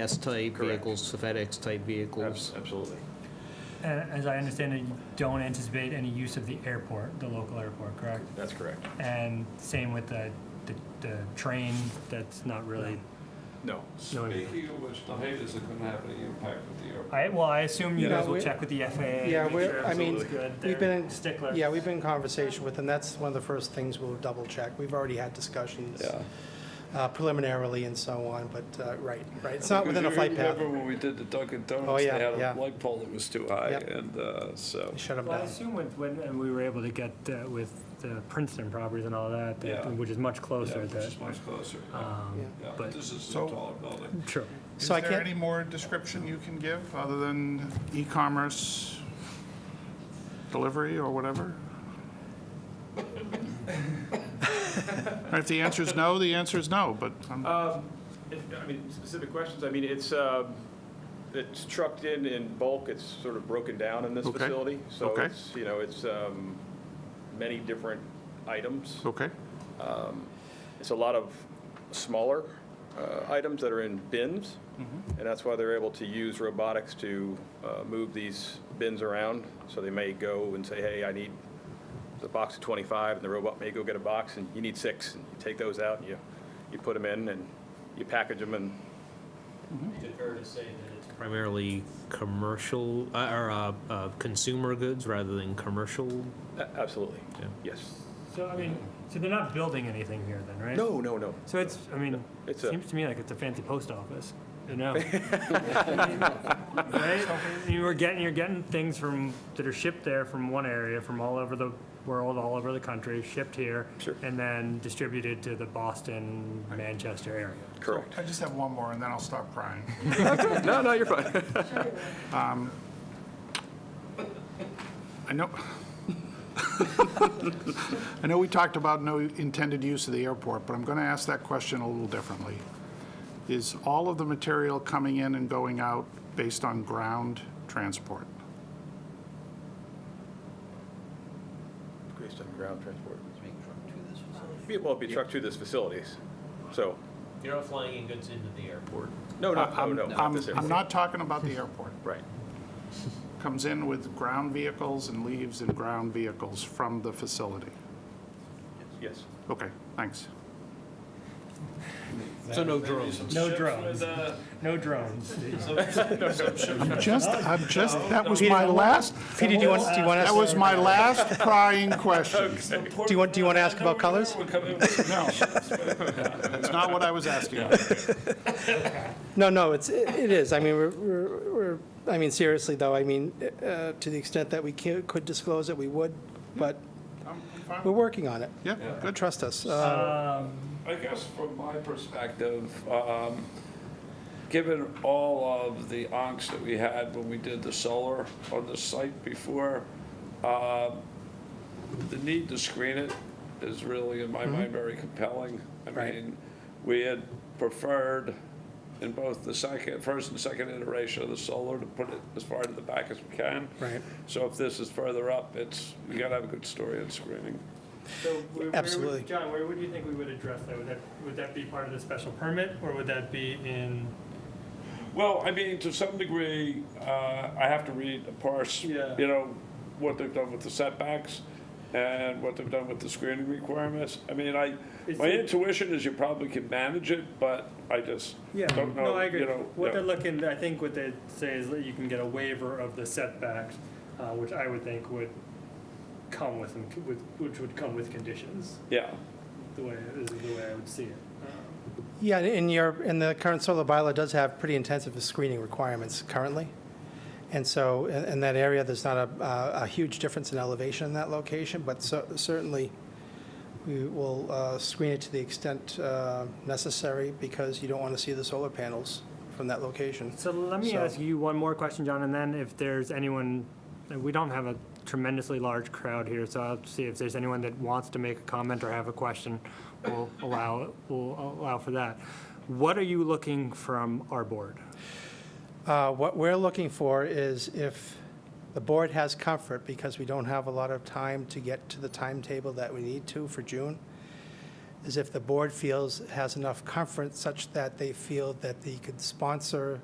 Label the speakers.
Speaker 1: UPS-type
Speaker 2: Correct.
Speaker 1: vehicles, FedEx-type vehicles.
Speaker 2: Abs- Absolutely.
Speaker 3: And as I understand it, you don't anticipate any use of the airport, the local airport, correct?
Speaker 2: That's correct.
Speaker 3: And same with the, the, the train, that's not really,
Speaker 2: No.
Speaker 3: no.
Speaker 4: Speaking of which, the height isn't gonna have any impact with the airport.
Speaker 3: I, well, I assume you
Speaker 2: Yeah.
Speaker 3: guys will
Speaker 5: We-
Speaker 3: check with the FAA.
Speaker 5: Yeah,
Speaker 3: make
Speaker 5: we're-
Speaker 3: sure
Speaker 5: I mean,
Speaker 3: everything's good.
Speaker 5: we've
Speaker 3: They're
Speaker 5: been in-
Speaker 3: Stickler.
Speaker 5: Yeah, we've been in conversation with them. That's one of the first things we'll double check. We've already had discussions uh, preliminarily and so on, but, uh, right, right. It's not within a flight path.
Speaker 4: Remember when we did the Dunkin'
Speaker 5: Oh,
Speaker 4: Donuts, they
Speaker 5: yeah,
Speaker 4: had
Speaker 5: yeah.
Speaker 4: a light pole that was too high,
Speaker 5: Yep.
Speaker 4: and uh, so,
Speaker 5: They Shut them
Speaker 3: Well, I
Speaker 5: down.
Speaker 3: assume with, when, and we were able to get uh, with the Princeton properties and all that, that-
Speaker 4: Yeah.
Speaker 3: which is much
Speaker 4: yeah,
Speaker 3: closer
Speaker 4: which
Speaker 3: that,
Speaker 4: is much closer.
Speaker 3: um,
Speaker 5: Yeah.
Speaker 4: Yeah,
Speaker 3: but-
Speaker 4: this is a
Speaker 6: So-
Speaker 4: taller building.
Speaker 3: true.
Speaker 6: Is
Speaker 5: So I
Speaker 6: there
Speaker 5: can't,
Speaker 6: any more description you can give other than e-commerce delivery or whatever? Or If the answer is no, the answer is no, but I'm-
Speaker 7: If- I mean, specific questions, I mean, it's, um, it's trucked in in bulk, it's sort of broken down in this
Speaker 6: Okay.
Speaker 7: facility. So
Speaker 6: Okay.
Speaker 7: it's, you know, it's um, many different items.
Speaker 6: okay,
Speaker 7: It's a lot of smaller uh, items that are in bins, and that's why they're able to use robotics to uh, move these bins around. So they may go and say, hey, I need the box of 25, and the robot may go get a box, and you need six, and you take those out, and you, you put them in, and you package them, and
Speaker 1: Fair to say that it's primarily commercial, uh, or uh, uh, consumer goods rather than commercial?
Speaker 7: A- Absolutely,
Speaker 1: Yeah.
Speaker 7: yes.
Speaker 3: So, I mean, so they're not building anything here then, right?
Speaker 7: No, no, no.
Speaker 3: So it's, I mean, it
Speaker 7: It's a-
Speaker 3: seems to me like it's a fancy post office, you know? Right? You were getting, you're getting things from, that are shipped there from one area, from all over the world, all over the country, shipped here.
Speaker 7: Sure.
Speaker 3: And then distributed to the Boston, Manchester area.
Speaker 7: Correct.
Speaker 6: I just have one more and then I'll stop crying. Um,
Speaker 7: No, no, you're fine.
Speaker 6: I know, I know we talked about no intended use of the airport, but I'm going to ask that question a little differently. Is all of the material coming in and going out based on ground transport?
Speaker 7: Based on ground transport. Yeah, Well, it'd be trucked to this facilities, so,
Speaker 1: You're not flying in goods into the airport.
Speaker 7: no, no, no,
Speaker 6: I'm-
Speaker 7: Oh, no. not
Speaker 6: I'm
Speaker 7: this area.
Speaker 6: I'm not talking about the airport.
Speaker 7: Right,
Speaker 6: Comes in with ground vehicles and leaves in ground vehicles from the facility.
Speaker 7: yes.
Speaker 6: Okay, thanks.
Speaker 1: So no drones?
Speaker 3: No drones, no drones.
Speaker 6: I'm just, I'm just, that was
Speaker 5: Peter,
Speaker 6: my
Speaker 5: do you
Speaker 6: last,
Speaker 5: Peter, do you want, do you want
Speaker 6: that was
Speaker 5: us,
Speaker 6: my last crying question.
Speaker 5: do you want, do you want to ask about colors?
Speaker 6: No. That's not what I was asking.
Speaker 5: No, no, it's, it it is. I mean, we're- we're, we're- I mean, seriously, though, I mean, uh, to the extent that we ca- could disclose it, we would, but we're working on it.
Speaker 6: Yeah, good.
Speaker 5: Trust us. Uh,
Speaker 4: I guess from my perspective, um, given all of the angst that we had when we did the solar on the site before, um, the need to screen it is really, in my mind, very compelling. I
Speaker 5: Mm-hmm. Right.
Speaker 4: mean, we had preferred in both the second, first and second iteration of the solar to put it as far to the back as we can.
Speaker 5: Right.
Speaker 4: So if this is further up, it's, we gotta have a good story on screening.
Speaker 5: Absolutely.
Speaker 3: John, where would you think we would address that? Would that, would that be part of the special permit, or would that be in?
Speaker 4: Well, I mean, to some degree, uh, I have to read, of course, you
Speaker 3: Yeah.
Speaker 4: know, what they've done with the setbacks and what they've done with the screening requirements. I mean, I,
Speaker 3: Is
Speaker 4: my
Speaker 3: it-
Speaker 4: intuition is you probably can manage it, but I just
Speaker 3: Yeah,
Speaker 4: don't know,
Speaker 3: no, I agree.
Speaker 4: you know.
Speaker 3: What
Speaker 4: yeah.
Speaker 3: they're looking, I think what they say is that you can get a waiver of the setbacks, uh, which I would think would come with, some- with, which would come with conditions,
Speaker 4: Yeah,
Speaker 3: the way, is the way I would see it.
Speaker 5: Yeah, and your, and the current solar bylaw does have pretty intensive screening requirements currently. And so in in that area, there's not a, uh, a- a huge difference in elevation in that location, but cer- certainly we will uh, screen it to the extent uh, necessary because you don't want to see the solar panels from that location.
Speaker 3: So let me
Speaker 5: So-
Speaker 3: ask you one more question, John, and then if there's anyone, we don't have a tremendously large crowd here, so I'll see if there's anyone that wants to make a comment or have a question, we'll allow, we'll allow for that. What are you looking from our board?
Speaker 5: Uh, What we're looking for is if the board has comfort, because we don't have a lot of time to get to the timetable that we need to for June, is if the board feels, has enough comfort such that they feel that they could sponsor